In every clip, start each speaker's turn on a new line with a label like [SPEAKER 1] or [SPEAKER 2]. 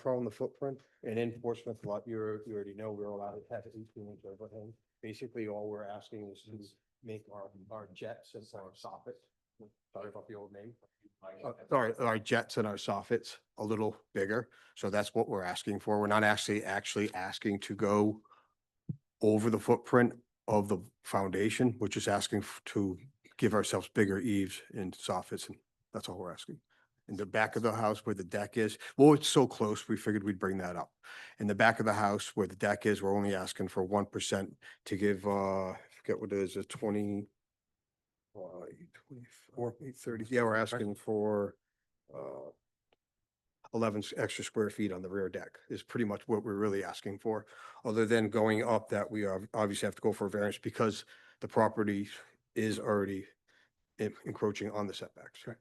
[SPEAKER 1] prone the footprint. And in Portsmouth, lot, you're, you already know, we're allowed to have eighteen inch overhang. Basically, all we're asking is to make our, our jets and our soffit. Sorry about the old name. Uh, Sorry, our jets and our soffits a little bigger. So that's what we're asking for. We're not actually, actually asking to go over the footprint of the foundation. We're just asking f- to give ourselves bigger eaves and soffits, and that's all we're asking. In the back of the house where the deck is, well, it's so close, we figured we'd bring that up. In the back of the house where the deck is, we're only asking for one percent to give, uh, I forget what it is, a twenty, uh, twenty-four, thirty, yeah, we're asking for, uh, eleven s- extra square feet on the rear deck is pretty much what we're really asking for other than going up that we ob- obviously have to go for a variance because the property is already en- encroaching on the setbacks.
[SPEAKER 2] Correct.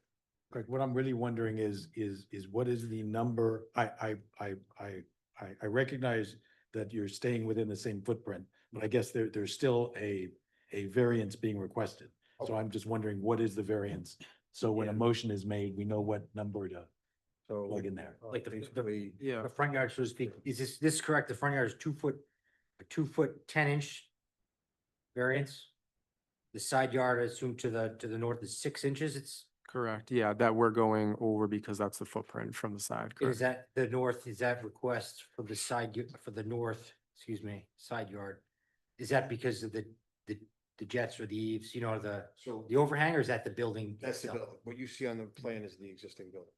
[SPEAKER 2] Greg, what I'm really wondering is, is, is what is the number? I, I, I, I, I, I recognize that you're staying within the same footprint, but I guess there, there's still a, a variance being requested.
[SPEAKER 1] Okay.
[SPEAKER 2] So I'm just wondering, what is the variance? So when a
[SPEAKER 1] Yeah.
[SPEAKER 2] motion is made, we know what number to
[SPEAKER 1] So.
[SPEAKER 2] plug in there.
[SPEAKER 1] uh,
[SPEAKER 3] Like the- the-
[SPEAKER 1] Basically,
[SPEAKER 4] Yeah,
[SPEAKER 3] The front yard, so to speak, is this, this is correct? The front yard is two foot, a two foot, ten inch variance? The side yard, I assume to the, to the north is six inches, it's,
[SPEAKER 4] correct. Yeah, that we're going over because that's the footprint from the side.
[SPEAKER 3] is
[SPEAKER 4] correct.
[SPEAKER 3] that the north, is that request for the side, y- for the north, excuse me, side yard? Is that because of the, the, the jets or the eaves, you know, the,
[SPEAKER 1] so
[SPEAKER 3] the overhang, or is that the building?
[SPEAKER 1] that's the,
[SPEAKER 3] itself?
[SPEAKER 1] buil- what you see on the plan is the existing building,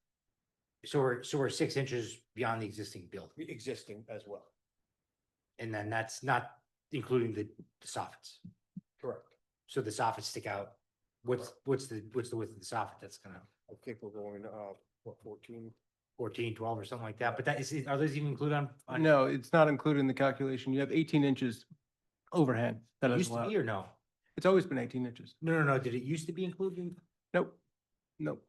[SPEAKER 3] So we're, so we're six inches beyond the existing building,
[SPEAKER 1] existing as well.
[SPEAKER 3] and then that's not including the the soffits?
[SPEAKER 1] Correct.
[SPEAKER 3] So the soffits stick out. What's, what's the, what's the width of the soffit that's gonna,
[SPEAKER 1] I think we're going, uh, what, fourteen?
[SPEAKER 3] 14, 12, or something like that, but that is, are those even included on? on-
[SPEAKER 5] No, it's not included in the calculation. You have eighteen inches overhand. That
[SPEAKER 3] It
[SPEAKER 5] is
[SPEAKER 3] Used to
[SPEAKER 5] allowed.
[SPEAKER 3] be or no?
[SPEAKER 5] It's always been eighteen inches.
[SPEAKER 3] No, no, no, did it used to be included? in-
[SPEAKER 5] Nope, nope.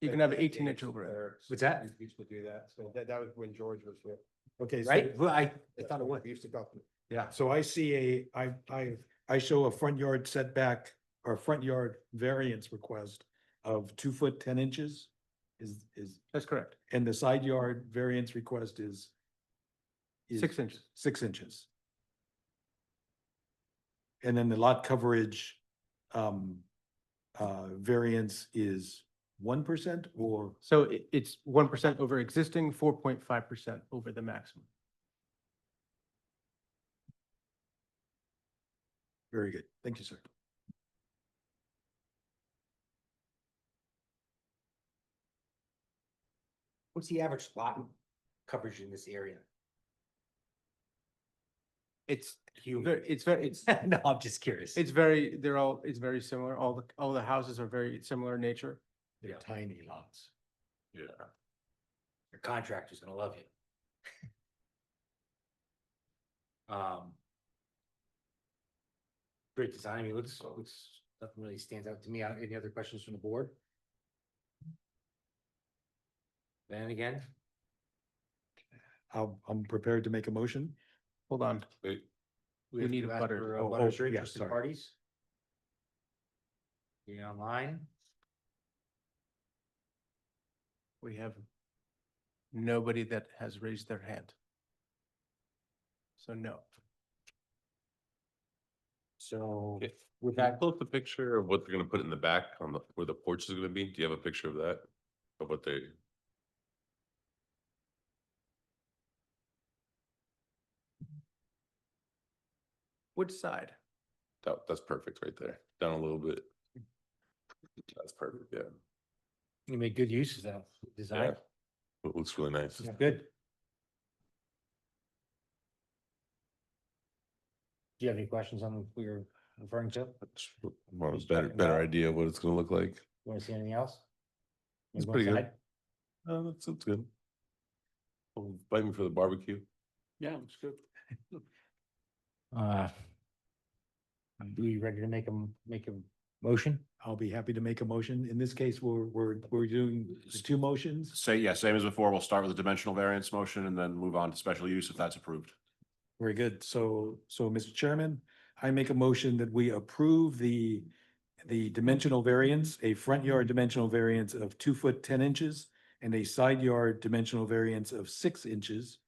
[SPEAKER 5] You can have eighteen inch overhand.
[SPEAKER 3] What's that?
[SPEAKER 1] We Used to do that, so that, that was when George was here.
[SPEAKER 2] Okay, so-
[SPEAKER 3] Right, well, I, I thought it was.
[SPEAKER 1] We used to go.
[SPEAKER 3] Yeah.
[SPEAKER 2] So I see a, I, I, I show a front yard setback or front yard variance request of two foot, ten inches is, is,
[SPEAKER 5] That's correct.
[SPEAKER 2] and the side yard variance request is is
[SPEAKER 5] Six inches.
[SPEAKER 2] Six inches. And then the lot coverage um, uh, variance is one percent or,
[SPEAKER 5] So it, it's one percent over existing, four point five percent over the maximum.
[SPEAKER 2] very good, thank you, sir.
[SPEAKER 3] What's the average lot coverage in this area?
[SPEAKER 5] It's,
[SPEAKER 3] Human.
[SPEAKER 5] ver- it's very, it's,
[SPEAKER 3] No, I'm just curious.
[SPEAKER 5] it's very, they're all, it's very similar. All the, all the houses are very similar in nature.
[SPEAKER 2] They're tiny lots.
[SPEAKER 3] Your contractor's gonna love you. Um. Great design, I mean, looks, looks, nothing really stands out to me. Uh, Any other questions from the board? Then again,
[SPEAKER 2] I'm, I'm prepared to make a motion.
[SPEAKER 5] Hold on.
[SPEAKER 3] we
[SPEAKER 5] We
[SPEAKER 3] have
[SPEAKER 5] need
[SPEAKER 3] to
[SPEAKER 5] a
[SPEAKER 3] ask
[SPEAKER 5] butter.
[SPEAKER 3] for, uh,
[SPEAKER 2] Oh, oh,
[SPEAKER 3] butters or
[SPEAKER 2] yeah,
[SPEAKER 3] interested
[SPEAKER 2] sorry.
[SPEAKER 3] parties. Be online,
[SPEAKER 5] We have nobody that has raised their hand. So no.
[SPEAKER 3] so
[SPEAKER 6] Okay.
[SPEAKER 3] with
[SPEAKER 6] Can you
[SPEAKER 3] that,
[SPEAKER 6] pull up a picture of what they're gonna put in the back on the, where the porch is gonna be? Do you have a picture of that? Of what they,
[SPEAKER 5] Which side?
[SPEAKER 6] that, that's perfect right there, down a little bit. That's perfect, yeah.
[SPEAKER 3] you made good use of that
[SPEAKER 6] Yeah.
[SPEAKER 3] design.
[SPEAKER 6] It looks really nice.
[SPEAKER 3] Yeah, Good. Do you have any questions on what we were referring to?
[SPEAKER 6] It's more of a
[SPEAKER 3] Just
[SPEAKER 6] better,
[SPEAKER 3] checking it
[SPEAKER 6] better
[SPEAKER 3] out.
[SPEAKER 6] idea of what it's gonna look like.
[SPEAKER 3] Want to see anything else? Wanna
[SPEAKER 6] It's
[SPEAKER 3] go
[SPEAKER 6] pretty good.
[SPEAKER 3] inside?
[SPEAKER 6] Oh, that's, that's good. Well, Invite me for the barbecue.
[SPEAKER 4] Yeah, it's good.
[SPEAKER 3] Uh, Are you ready to make them, make a motion?
[SPEAKER 2] I'll be happy to make a motion. In this case, we're, we're, we're doing two motions.
[SPEAKER 7] Say, yeah, same as before. We'll start with the dimensional variance motion and then move on to special use if that's approved.
[SPEAKER 2] Very good. So, so Mr. Chairman, I make a motion that we approve the, the dimensional variance, a front yard dimensional variance of two foot, ten inches and a side yard dimensional variance of six inches